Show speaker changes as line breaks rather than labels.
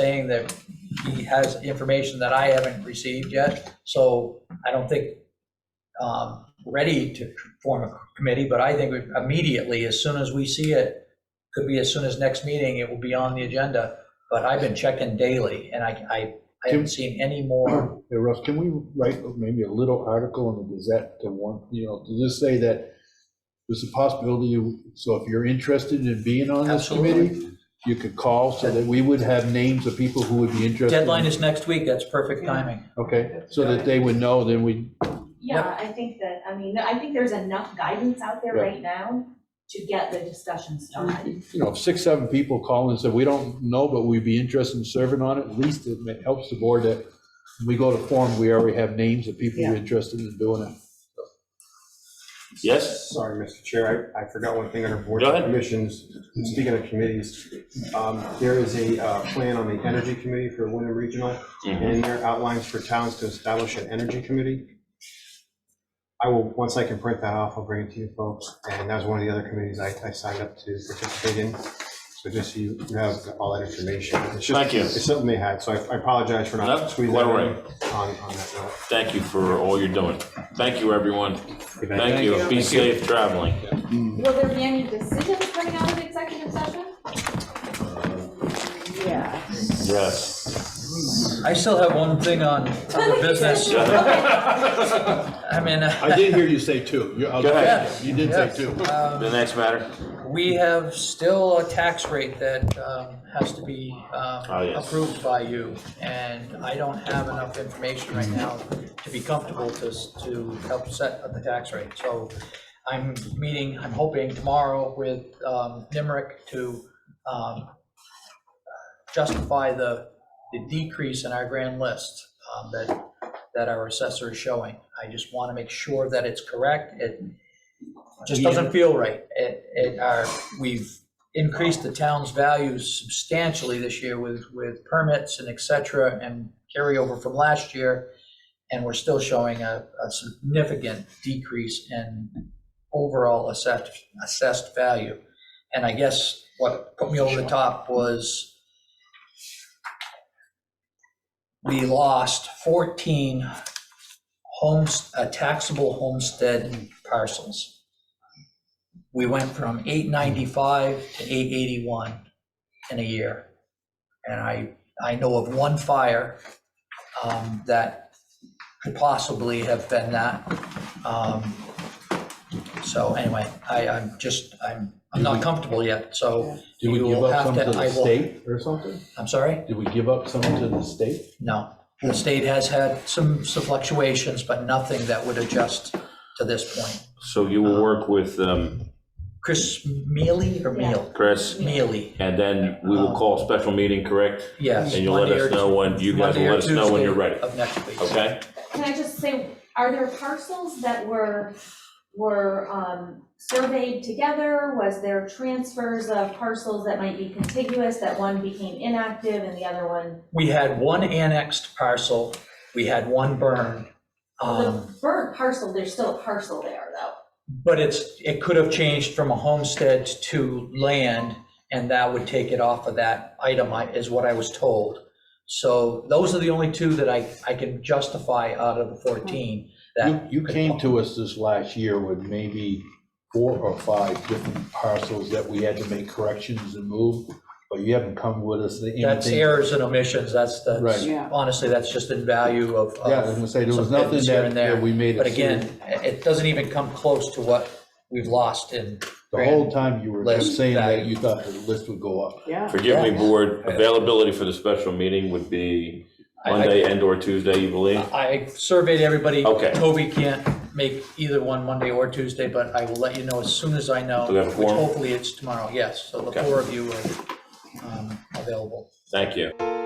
saying that he has information that I haven't received yet, so I don't think um, ready to form a committee, but I think immediately, as soon as we see it, could be as soon as next meeting, it will be on the agenda, but I've been checking daily, and I, I, I haven't seen any more.
Hey, Russ, can we write maybe a little article in the Gazette to warn, you know, to just say that there's a possibility, you- so if you're interested in being on this committee, you could call so that we would have names of people who would be interested.
Deadline is next week, that's perfect timing.
Okay, so that they would know, then we,
Yeah, I think that, I mean, I think there's enough guidance out there
Yeah.
right now to get the discussion started.
you know, if six, seven people call and say, we don't know, but we'd be interested in serving on it, at least it ma- helps the board that when we go to form, we already have names of people who are interested in doing it.
Yes?
Sorry, Mr. Chair, I, I forgot one thing under boards
Go
and
ahead.
commissions. Speaking of committees, um, there is a, uh, plan on the energy committee for Wyndham Regional, and in there outlines for towns to establish an energy committee. I will, once I can print that off, I'll bring it to you folks, and that was one of the other committees I, I signed up to participate in. So just so you you have all that information. It's just-
Thank you.
It's something they had, so I I apologize for
No,
not squeezing that
don't worry.
in on, on that note.
Thank you for all you're doing. Thank you, everyone. Thank you. Be safe traveling.
Mm-hmm.
Will there be any decisions coming out of executive session?
Yeah.
Yes.
I still have one thing on other business, I mean.
I did hear you say two. You- I'll-
Go ahead.
You did say two.
Um,
The next matter?
We have still a tax rate that um, has to be um,
Oh, yes.
approved by you, and I don't have enough information right now to be comfortable to, s- to help set the tax rate. So I'm meeting, I'm hoping tomorrow with um, NIMRIC to um, justify the, the decrease in our grand list um, that, that our assessor is showing. I just want to make sure that it's correct. It just doesn't feel right. It, it, our, we've increased the town's values substantially this year with, with permits and et cetera and carryover from last year. And we're still showing a, a significant decrease in overall assessed, assessed value. And I guess what put me over the top was we lost 14 homes, uh, taxable homestead parcels we went from eight ninety-five to eight eighty-one in a year. And I, I know of one fire um, that could possibly have been that. Um, So anyway, I, I'm just, I'm, I'm not comfortable yet, so
Did we
You
give
will
up
have
some
to-
to
I
the
will-
state or something?
I'm sorry,
Did we give up some to the state?
no. The state has had some some fluctuations, but nothing that would adjust to this point.
So you will work with um,
Chris Mealy or Meal?
Chris,
Mealy,
and then we will call a special meeting, correct?
yes.
And you'll let
Monday or
us know when, you guys
Monday
will
or
let us know when you're
Tuesday
ready,
Of next week.
okay?
Can I just say, are there parcels that were, were um, surveyed together? Was there transfers of parcels that might be contiguous, that one became inactive and the other one?
We had one annexed parcel, we had one burn.
The
Um,
burnt parcel, there's still a parcel there though.
but it's, it could have changed from a homestead to land, and that would take it off of that item, I- is what I was told. So those are the only two that I, I can justify out of the fourteen
You,
that.
you came to us this last year with maybe four or five different parcels that we had to make corrections and move, but you haven't come with us to anything.
That's errors and omissions, that's, that's,
Right.
Yeah.
honestly, that's just in value of. of-
Yeah, I was gonna say, there was
Some bits
nothing
here
that,
and there,
that we made.
But
it
again, it it doesn't even come close to what we've lost in.
The whole time you were
list
just saying that
value.
you thought the list would go up.
Yeah.
Forgive me, board, availability for the special meeting would be
I- I-
Monday and or Tuesday, you believe?
I surveyed everybody.
Okay.
Toby can't make either one Monday or Tuesday, but I will let you know as soon as I know.
Do we have a
Which
quorum?
hopefully it's tomorrow, yes. So the
Okay.
four of you are um, available.
Thank you.